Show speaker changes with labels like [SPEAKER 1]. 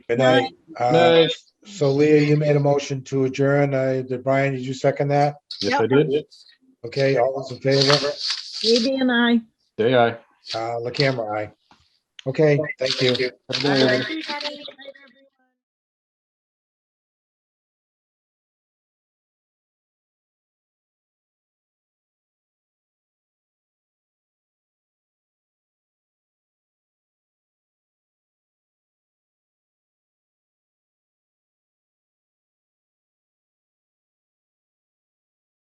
[SPEAKER 1] Good night. Uh,
[SPEAKER 2] Nice.
[SPEAKER 1] So Leah, you made a motion to adjourn. Uh, did- Brian, did you second that?
[SPEAKER 2] Yes, I did.
[SPEAKER 1] Okay, all those in favor?
[SPEAKER 3] Fabi and I.
[SPEAKER 2] Day I.
[SPEAKER 1] Uh, La camera, aye. Okay, thank you.
[SPEAKER 2] Have a good one.
[SPEAKER 4] everybody.